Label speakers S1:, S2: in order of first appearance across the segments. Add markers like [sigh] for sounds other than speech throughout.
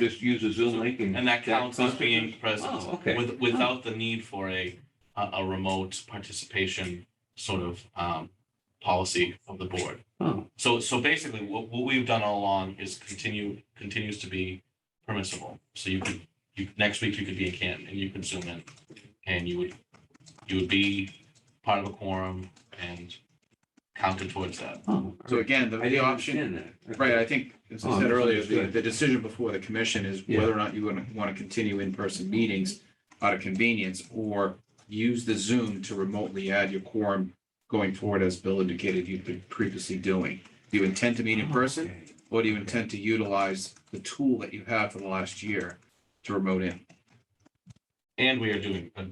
S1: just use a Zoom link and.
S2: And that counts as being
S1: Oh,
S2: present
S1: okay.
S2: with, without the need for a, a, a remote participation sort of, um, policy of the board.
S1: Oh,
S2: So, so basically, what, what we've done all along is continue, continues to be permissible. So you could, you, next week you could be in Canton and you could zoom in. And you would, you would be part of a quorum and counted towards that.
S1: oh.
S3: So again, the,
S1: I
S3: the
S1: didn't
S3: option,
S1: understand that.
S3: right, I think, as
S1: Oh,
S3: I said earlier, the,
S1: misunderstood.
S3: the decision before the commission is
S1: Yeah.
S3: whether or not you want to, want to continue in-person meetings out of convenience or use the Zoom to remotely add your quorum going forward, as Bill indicated you've been previously doing. Do you intend to meet in person
S1: Oh, Okay.
S3: or do you intend to utilize the tool that you have for the last year to remote in?
S2: And we are doing a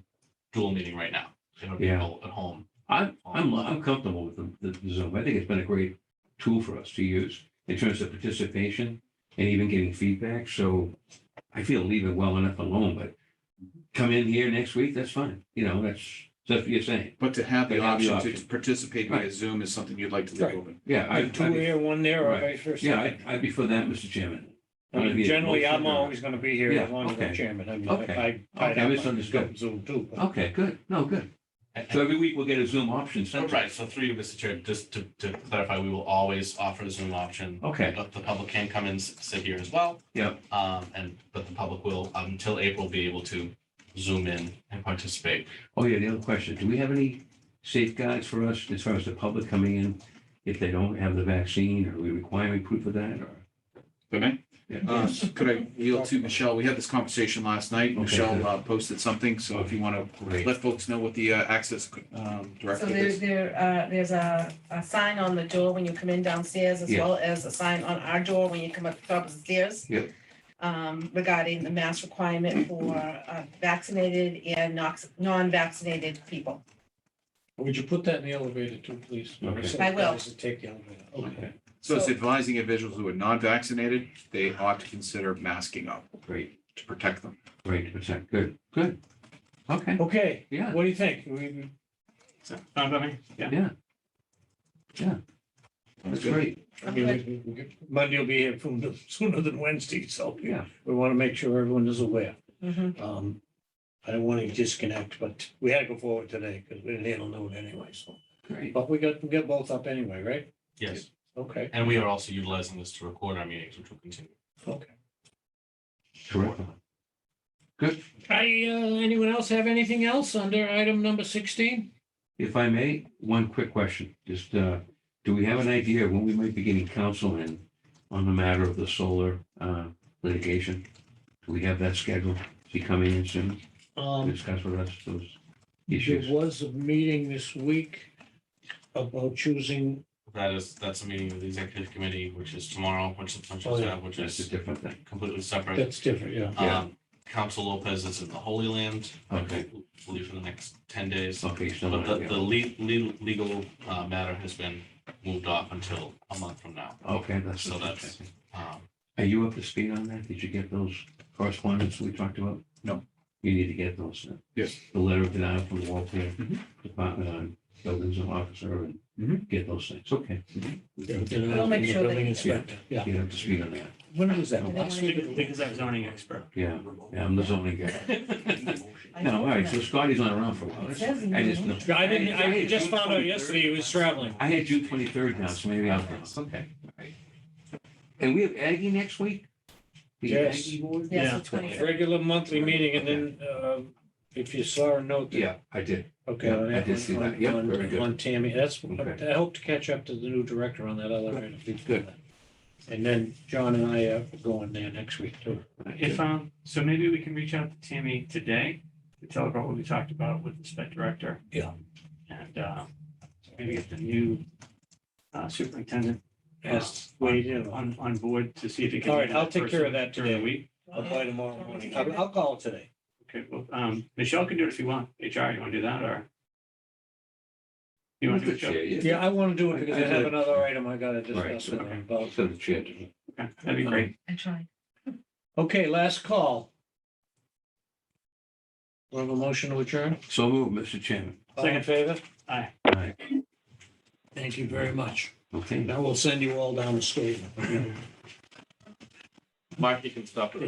S2: dual meeting right now. You know,
S1: Yeah.
S2: people at home.
S1: I'm, I'm, I'm comfortable with the, the Zoom. I think it's been a great tool for us to use in terms of participation and even getting feedback. So I feel leave it well enough alone, but come in here next week, that's fine. You know, that's, that's what you're saying.
S3: But to have the
S1: They have the
S3: option to
S1: option.
S3: participate via
S1: Right.
S3: Zoom is something you'd like to
S4: Right.
S3: leave open.
S1: Yeah. I- I'd
S4: Two
S1: be-
S4: here, one there, or
S1: Right.
S4: vice versa.
S1: Yeah, I'd, I'd be for that, Mr. Chairman.
S4: I mean,
S1: I'd be a
S4: Generally, I'm
S1: motion or-
S4: always going to be here
S1: Yeah,
S4: as long as
S1: okay.
S4: I'm chairman. I mean,
S1: Okay.
S4: I- I.
S1: Okay, I misunderstood.
S4: Zoom too. but-
S1: Okay, good. No, good.
S2: And- and-
S1: So every week we'll get a Zoom option
S2: Oh,
S1: sent. to us.
S2: Right, so three, Mr. Chair, just to, to clarify, we will always offer the Zoom option.
S1: Okay.
S2: But the public can come and s- sit here as well.
S1: Yep.
S2: Um, and, but the public will, um, until April, be able to zoom in and participate.
S1: Oh, yeah, the other question, do we have any safeguards for us as far as the public coming in if they don't have the vaccine? Are we requiring proof of that or?
S3: Okay.
S1: Yeah.
S3: Uh, Could I yield to Michelle? We had this conversation last night.
S1: Okay.
S3: Michelle uh, posted something, so if you want to
S1: Great.
S3: let folks know what the uh, access um,
S5: So
S3: directive
S5: there's
S3: is.
S5: there, uh, there's a, a sign on the door when you come in downstairs as
S1: Yeah.
S5: well as a sign on our door when you come up the top of the stairs.
S1: Yep.
S5: Um, regarding the mask requirement for uh, vaccinated and nox- non-vaccinated people.
S4: Would you put that in the elevator too, please?
S1: Okay.
S5: I will.
S4: Guys that Take the elevator. Okay.
S3: So it's advising individuals who are non-vaccinated, they ought to consider masking up
S1: Great,
S3: to protect them.
S1: great, percent, good, good. Okay,
S4: Okay,
S1: yeah,
S4: what do you think? We-
S1: yeah. Yeah, that's great,
S4: I mean, we- we- we- Monday will be here from- sooner [laughs] than Wednesday, so
S1: yeah.
S4: we want to make sure everyone is aware.
S5: Mhm.
S4: Um, I don't want to disconnect, but we had to go forward today because we didn't handle note anyway, so.
S1: Great.
S4: But we got, we got both up anyway, right?
S2: Yes,
S4: Okay,
S2: and we are also utilizing this to record our meetings, which will continue.
S4: okay.
S1: Terrific. Good,
S4: I, uh, anyone else have anything else under item number sixteen?
S1: if I may, one quick question, just, uh, do we have an idea when we might be getting counsel in on the matter of the solar, uh, litigation? Do we have that scheduled? Is he coming in soon to
S4: Um,
S1: discuss with us those
S4: there
S1: issues?
S4: was a meeting this week about choosing,
S2: That is, that's a meeting of the executive committee, which is tomorrow, which is, which
S4: Oh,
S2: is,
S4: yeah.
S2: uh, which
S1: That's a
S2: is
S1: different thing.
S2: completely separate.
S4: that's different, yeah.
S1: yeah.
S2: Um, Council Lopez is in the Holy Land.
S1: Okay.
S2: Will be for the next ten days.
S1: Okay, so,
S2: But the, the
S1: yeah.
S2: le- le- legal, uh, matter has been moved off until a month from now.
S1: okay, that's,
S2: So
S1: that's.
S2: that's- Um,
S1: Are you up to speed on that? Did you get those correspondence we talked about?
S3: No.
S1: You need to get those. uh,
S3: Yes.
S1: The letter of denial from the Walter
S3: Mhm.
S1: Department on Buildings and Officer and
S3: Mhm.
S1: get those things. Okay.
S5: We'll make sure that-
S4: Building inspector, yeah.
S1: You're up to speed on that.
S4: When was that?
S5: Last week? Because
S4: I'm zoning expert.
S1: Yeah, yeah, I'm the zoning guy.
S2: [laughs]
S5: I
S1: No, all right, so
S5: don't
S1: Scotty's not around for a while.
S5: It says in
S1: I just
S5: the-
S1: know.
S4: I didn't, I just found out yesterday he was traveling.
S1: I had June twenty-third now, so maybe I'll. Okay. And we have Aggie next week? The
S4: Yes.
S1: Aggie board?
S5: know. Yes,
S4: Yeah.
S5: the 23rd.
S4: Regular monthly meeting and then, uh, if you saw a note. that-
S1: Yeah, I did.
S4: Okay.
S1: Yeah,
S4: on
S1: I
S4: that
S1: did
S4: one-
S1: see that.
S4: on-
S1: Yep,
S4: on-
S1: very good.
S4: On Tammy, that's,
S1: Okay.
S4: I hope to catch up to the new director on that elevator.
S1: Good.
S4: And then John and I are going there next week too.
S6: If, um, so maybe we can reach out to Tammy today to tell her what we talked about with the spec director.
S4: Yeah.
S6: And, uh, maybe get the new uh, superintendent
S4: As we do.
S6: on, on board to see if he can.
S4: All right,
S6: meet in
S4: I'll take care of
S6: person
S4: that
S6: During the
S4: today.
S6: week.
S4: I'll buy tomorrow morning. I'll, I'll call it today.
S6: Okay, well, um, Michelle can do it if you want. HR, you want to do that or? You want to do it, Joe?
S4: Yeah, I want to do it because I have another item I gotta
S1: Right.
S4: discuss with them about.
S1: So the chair doesn't.
S6: Okay, That'd be great.
S5: I tried.
S4: Okay, last call. We have a motion to adjourn.
S1: So move, Mr. Chairman.
S4: All in
S6: Second.
S4: favor?
S1: All right,
S4: Thank you very much.
S1: okay.
S4: Now we'll send you all down the statement.
S2: Mark, you can stop it.